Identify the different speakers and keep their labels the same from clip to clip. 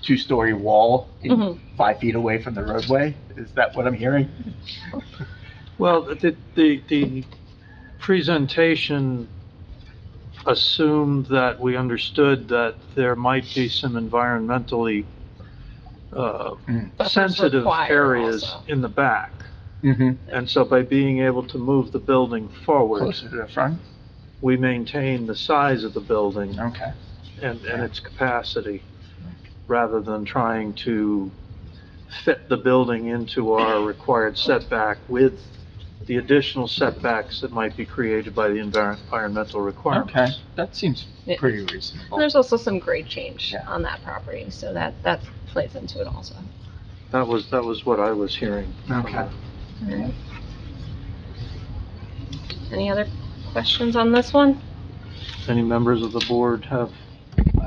Speaker 1: two-story wall in-
Speaker 2: Mhm.
Speaker 1: five feet away from the roadway? Is that what I'm hearing?
Speaker 3: Well, the, the, the presentation assumed that we understood that there might be some environmentally, uh,
Speaker 2: Buffers
Speaker 3: sensitive
Speaker 2: required
Speaker 3: areas
Speaker 2: also.
Speaker 3: in the back.
Speaker 1: Mm-hmm.
Speaker 3: And so by being able to move the building forward,
Speaker 1: Closer to the front?
Speaker 3: we maintain the size of the building
Speaker 1: Okay.
Speaker 3: and, and its capacity, rather than trying to fit the building into our required setback with the additional setbacks that might be created by the envir- environmental
Speaker 1: Okay,
Speaker 3: requirements.
Speaker 1: that seems
Speaker 2: Yeah.
Speaker 1: pretty
Speaker 2: And
Speaker 1: reasonable.
Speaker 2: there's also some grade change
Speaker 1: Yeah.
Speaker 2: on that property, so that, that plays into it also.
Speaker 3: That was, that was what I was hearing.
Speaker 1: Okay.
Speaker 2: Any other questions on this one?
Speaker 3: Any members of the board have,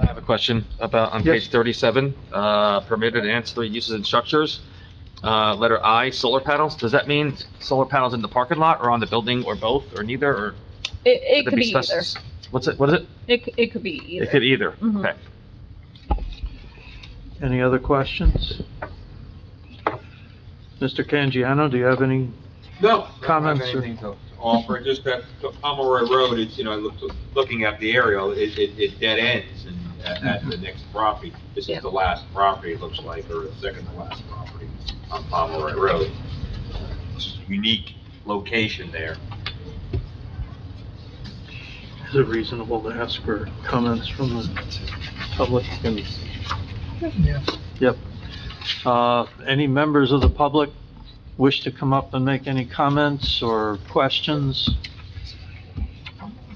Speaker 4: I have a question about, on
Speaker 3: Yes.
Speaker 4: page 37, uh, permitted ancillary uses and structures. Uh, Letter I, solar panels, does that mean solar panels in the parking lot or on the building or both or neither or?
Speaker 2: It, it
Speaker 4: should
Speaker 2: could be either.
Speaker 4: spec- What's it, what is it?
Speaker 2: It, c- it could be
Speaker 4: It could
Speaker 2: either.
Speaker 4: either,
Speaker 2: Mhm.
Speaker 4: okay.
Speaker 3: any other questions? Mr. Canjiano, do you have any?
Speaker 5: No.
Speaker 3: Comments
Speaker 5: I
Speaker 3: or-
Speaker 5: don't have anything to to offer, just that the Pomeroy Road, it's, you know, I looked, looking at the aerial, it, it, it dead ends and at, at the next property. This
Speaker 2: Yeah.
Speaker 5: is the last property, it looks like, or the second to last property on Pomeroy Road. It's a Unique location there.
Speaker 3: Is it reasonable to ask for comments from the public? And- Yep. Uh, Any members of the public wish to come up and make any comments or questions?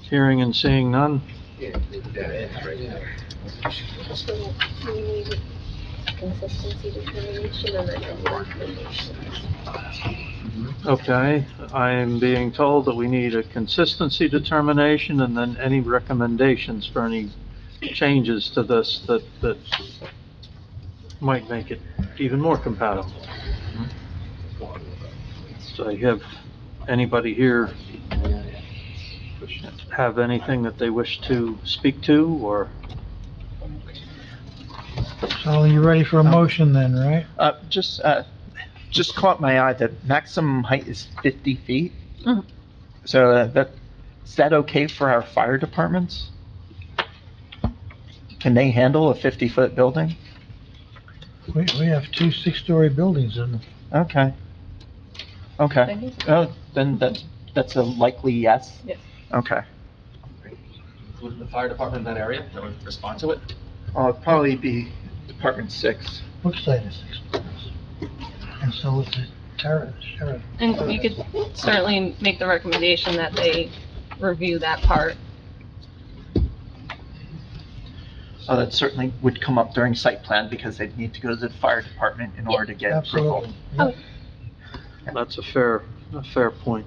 Speaker 3: Hearing and seeing none?
Speaker 5: Yeah, it's dead ends right there.
Speaker 6: So we need consistency determination and then a recommendation.
Speaker 3: Okay, I am being told that we need a consistency determination and then any recommendations for any changes to this that, that might make it even more compatible. So I have anybody here have anything that they wish to speak to or?
Speaker 7: So you're ready for a motion then, right?
Speaker 1: Uh, just, uh, just caught my eye that maximum height is 50 feet.
Speaker 2: Mhm.
Speaker 1: So uh, that, is that okay for our fire departments? Can they handle a 50-foot building?
Speaker 7: We, we have two six-story buildings in the
Speaker 1: Okay. Okay.
Speaker 2: Thank you.
Speaker 1: Oh, then that, that's a likely yes?
Speaker 2: Yes.
Speaker 1: Okay.
Speaker 4: Would the fire department in that area, that would respond to it?
Speaker 1: Uh, it'd probably be Department Six.
Speaker 7: Brookside is six stories. And so is the Tara, Sheriff.
Speaker 2: And you could certainly make the recommendation that they review that part.
Speaker 1: Uh, that certainly would come up during site plan because they'd need to go to the fire department in order to get approval.
Speaker 7: Absolutely. yeah.
Speaker 3: That's a fair, a fair point.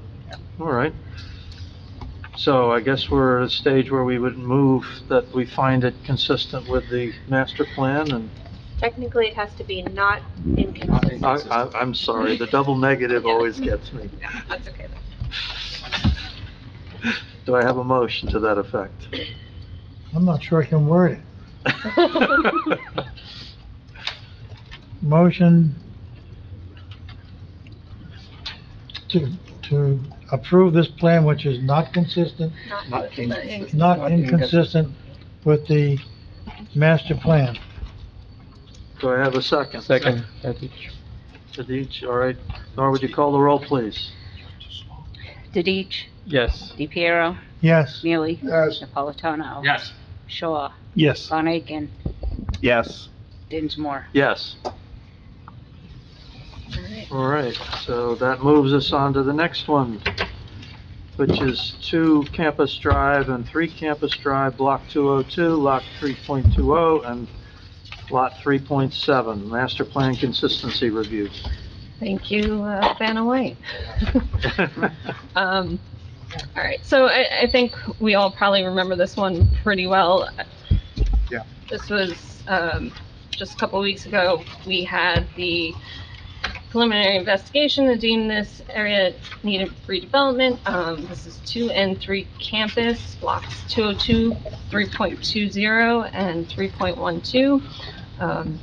Speaker 3: All right. So I guess we're at a stage where we would move that we find it consistent with the master plan and
Speaker 6: Technically, it has to be not inconsistent.
Speaker 3: I, I, I'm sorry, the double negative always gets me.
Speaker 2: That's okay.
Speaker 3: Do I have a motion to that effect?
Speaker 7: I'm not sure I can word it. Motion to, to approve this plan, which is not consistent,
Speaker 2: Not
Speaker 1: inconsistent.
Speaker 7: not inconsistent with the master plan.
Speaker 3: Do I have a second? Second. Tadich, all right. Nora, would you call the roll, please?
Speaker 8: Didich,
Speaker 3: Yes.
Speaker 8: DePiero,
Speaker 7: Yes.
Speaker 8: Neely,
Speaker 7: Yes.
Speaker 8: Napolitano.
Speaker 4: Yes.
Speaker 8: Shaw,
Speaker 7: Yes.
Speaker 8: Von Aiken,
Speaker 1: Yes.
Speaker 8: Dinsmore.
Speaker 3: Yes. All right, so that moves us on to the next one, which is 2 Campus Drive and 3 Campus Drive, Block 202, Lot 3.20, oh, and Lot 3.7, Master Plan Consistency Review.
Speaker 2: Thank you, uh, Vanna White. Um, all right, so I, I think we all probably remember this one pretty well.
Speaker 1: Yeah.
Speaker 2: This was, um, just a couple weeks ago, we had the preliminary investigation to deem this area needed redevelopment. Um, this is two and three campus, blocks 202, 3.20, and 3.12. Um,